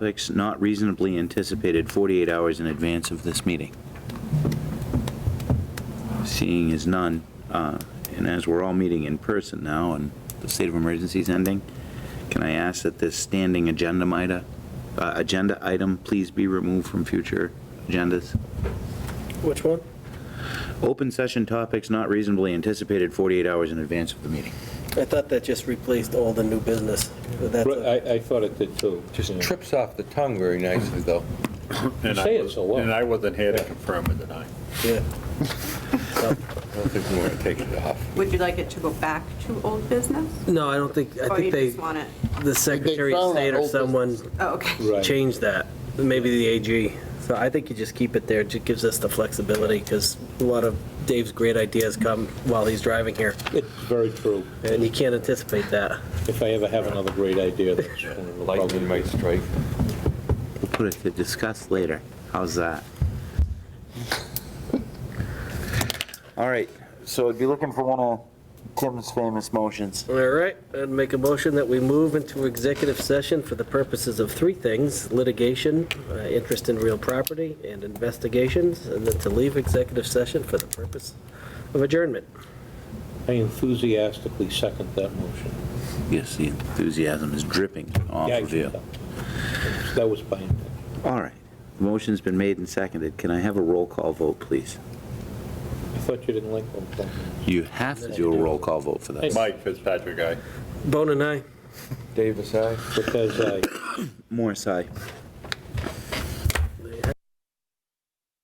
topics not reasonably anticipated 48 hours in advance of this meeting. Seeing as none, uh, and as we're all meeting in person now and the state of emergency is ending, can I ask that this standing agenda mida- uh, agenda item please be removed from future agendas? Which one? Open session topics not reasonably anticipated 48 hours in advance of the meeting. I thought that just replaced all the new business. but that's a- I, I thought it did too. Just Yeah. trips off the tongue very nicely, though. And I say it was- so well. And I wasn't here to confirm or deny. Yeah. I don't think we want to take it off. Would you like it to go back to old business? No, I don't think, I Or you think they, just want it, the Secretary of found State that or old someone oh, okay. Right. changed that, maybe the AG. So I think you just keep it there, it just gives us the flexibility, because a lot of Dave's great ideas come while he's driving here, It's very true. and you can't anticipate that. If I ever have another great idea, that's one of the Lightning problems. might strike. We'll put it to discuss later. How's that? All right, so I'd be looking for one of Tim's famous motions. All right, I'd make a motion that we move into executive session for the purposes of three things, litigation, uh, interest in real property, and investigations, and then to leave executive session for the purpose of adjournment. I enthusiastically second that motion. Yes, the enthusiasm is dripping off Yeah, I of you. did that. That was by intention. All right, the motion's been made and seconded. Can I have a roll call vote, please? I thought you didn't like them. You have to do a roll call vote for that. Mike Fitzpatrick, aye. Bone and I. Davis, aye? Because I, Morris, aye.